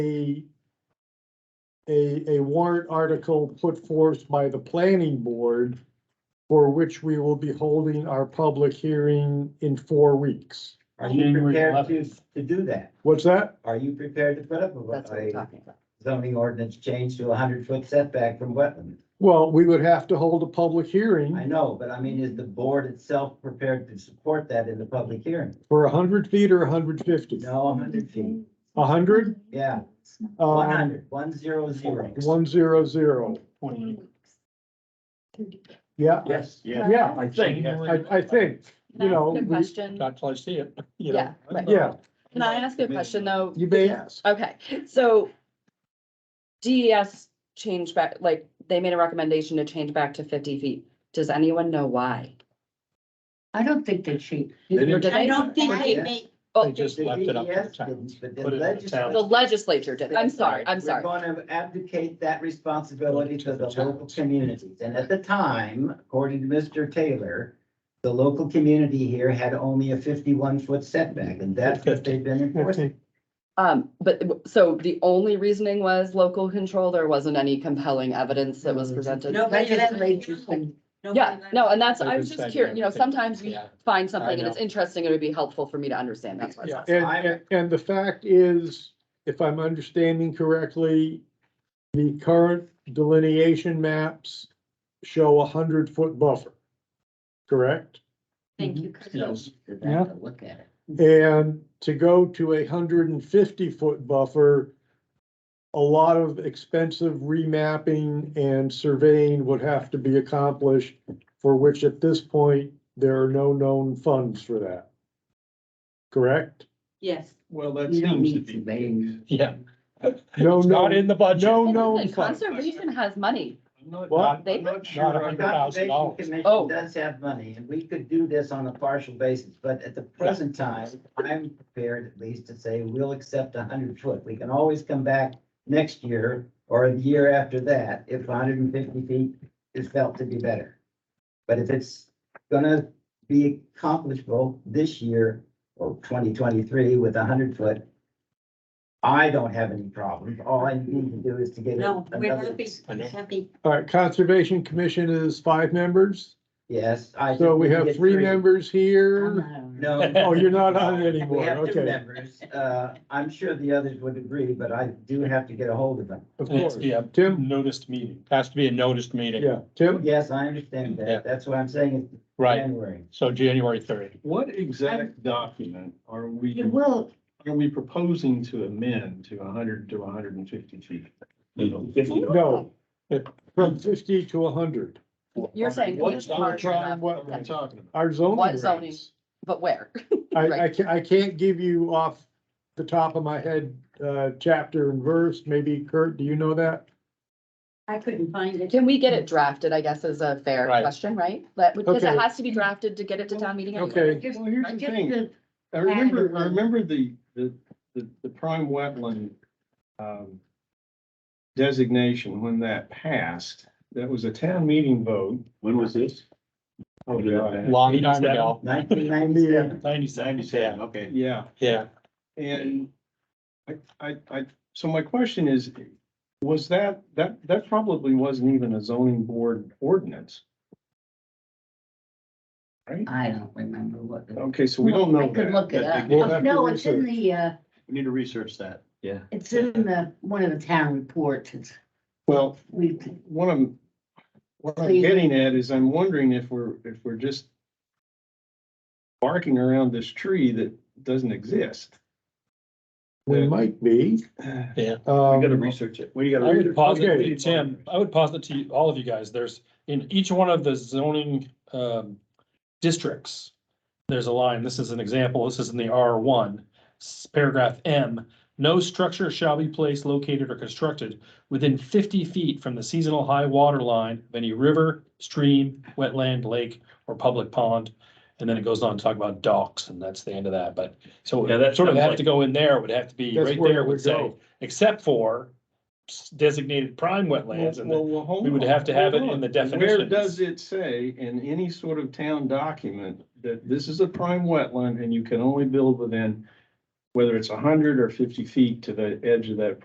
a, a, a warrant article put forth by the planning board for which we will be holding our public hearing in four weeks. Are you January prepared to, 11th. to do that? What's that? Are you prepared to put up That's what a- we're a talking about. zoning ordinance change to a hundred foot setback from wetland? Well, we would have to hold a public I Hmm? hearing know, but I mean, is the board itself prepared to support that in the public hearing? for hundred feet or hundred fifty? No, hundred feet, hundred? yeah, one Uh, hundred, one zero zero. one zero zero. Twenty. Yeah, Yes, yeah, yeah, I think, I, I think, you know, Good we- question. not till I see it, you know. Yeah, right. yeah, Can I ask you a question though? you may ask. Okay, so DES changed back, like, they made a recommendation to change back to fifty feet. Does anyone know why? I don't think they cheat. They Or didn't- did I they? don't think they make, They Oh, just The left it up E to the DES town. didn't, But the Put it in the legislature. town. the legislature did. I'm sorry, I'm sorry. We're going to abdicate that responsibility to the local communities. And at the time, according to Mr. Taylor, the local community here had only a fifty-one foot setback, and that's what they've been enforcing. Um, but, w- so the only reasoning was local control, there wasn't any compelling evidence that was presented? No. Nobody let me Legislatures know. and- Yeah, no, and that's, I They've was been just saying curious, you know, everything. sometimes we Yeah. find I something and know. it's interesting, it would be helpful for me to understand, that's why. I was Yeah, asking. and, and- and the fact is, if I'm understanding correctly, the current delineation maps show a hundred foot buffer, correct? Thank Mhm. you, 'cause Yes. I'll go Yeah. back and Look at it. And to go to a hundred and fifty foot buffer, a lot of expensive remapping and surveying would have to be accomplished, for which at this point, there are no known funds for that. Correct? yes. Well, that You don't need surveying. Yeah. No, It's not no. in the budget. No, Hey, no, listen, I'm sorry. Conservation has money. I'm not- What? I'm not sure The a hundred thousand Conservation dollars. Commission Oh. does have money, and we could do this on a partial basis, but at the present time, I'm prepared at least to say we'll accept a hundred foot. We can always come back next year or the year after that if hundred and fifty feet is felt to be better. But if it's gonna be accomplishable this year or twenty twenty-three with a hundred foot, I don't have any problems. All I need to do is to get. No, we're another- happy, I know. happy. All right, Conservation Commission is five members, Yes, I. so think we can have get three members I'm here. not on it. No. Oh, you're not on it We anymore, have two okay, members. Uh, I'm sure the others would agree, but I do have to get a hold of them. of And it's- course. Yeah, Tim, noticed meeting, has to be a noticed meeting. yeah, Tim, Yes, I understand Yeah. that. That's what I'm saying in Right, January. so January third. What exact document are we, You will, are we proposing to amend to hundred to hundred and fifty feet? no, from fifty to hundred, You're saying What's it's hard our enough, trying, what we're talking about? our What zoning zoning? rates. but where? I, I can't, I can't give you off the top of my head, uh, chapter and verse, maybe Kurt, do you know that? I couldn't find it. Can we get it drafted, I guess, is a fair Right. question, right? That, because Okay. it has to be drafted to get it to town meeting anyway. Okay. just, Well, here's the just thing. the, I remember, I remember the, the, the, the prime wetland, um, designation when that passed, that was a town meeting vote. When was this? Oh, God. Long time ago. Nineteen ninety-seven. Ninety-seven, yeah, okay. Yeah, yeah. and I, I, I, so my question is, was that, that, that probably wasn't even a zoning board ordinance. I don't remember what. the- Okay, so we don't I know could that. look it up. We'll have to Oh, No, it's in research. the, uh, We need to research that. Yeah. it's in the, one of the town reports. It's, Well, we, what I'm, what I'm Please. getting at is I'm wondering if we're, if we're just barking around this tree that doesn't exist. We Yeah. might be. Yeah. We gotta Um, research it. We gotta. I would posit Okay. to Tim, I would posit to all of you guys, there's, in each one of the zoning, um, districts, there's a line, this is an example, this is in the R one, paragraph M. No structure shall be placed, located, or constructed within fifty feet from the seasonal high water line of any river, stream, wetland, lake, or public pond. And then it goes on to talk about docks, and that's the end of that, but, so Yeah, that sort of sounds have like- to go in there, would have to be, That's right where there it would would say, go. except for designated prime wetlands and Well, well, hold we would on, have to have hold it in on. the Where definitions. does it say in any sort of town document that this is a prime wetland and you can only build within, whether it's hundred or fifty feet to the edge of that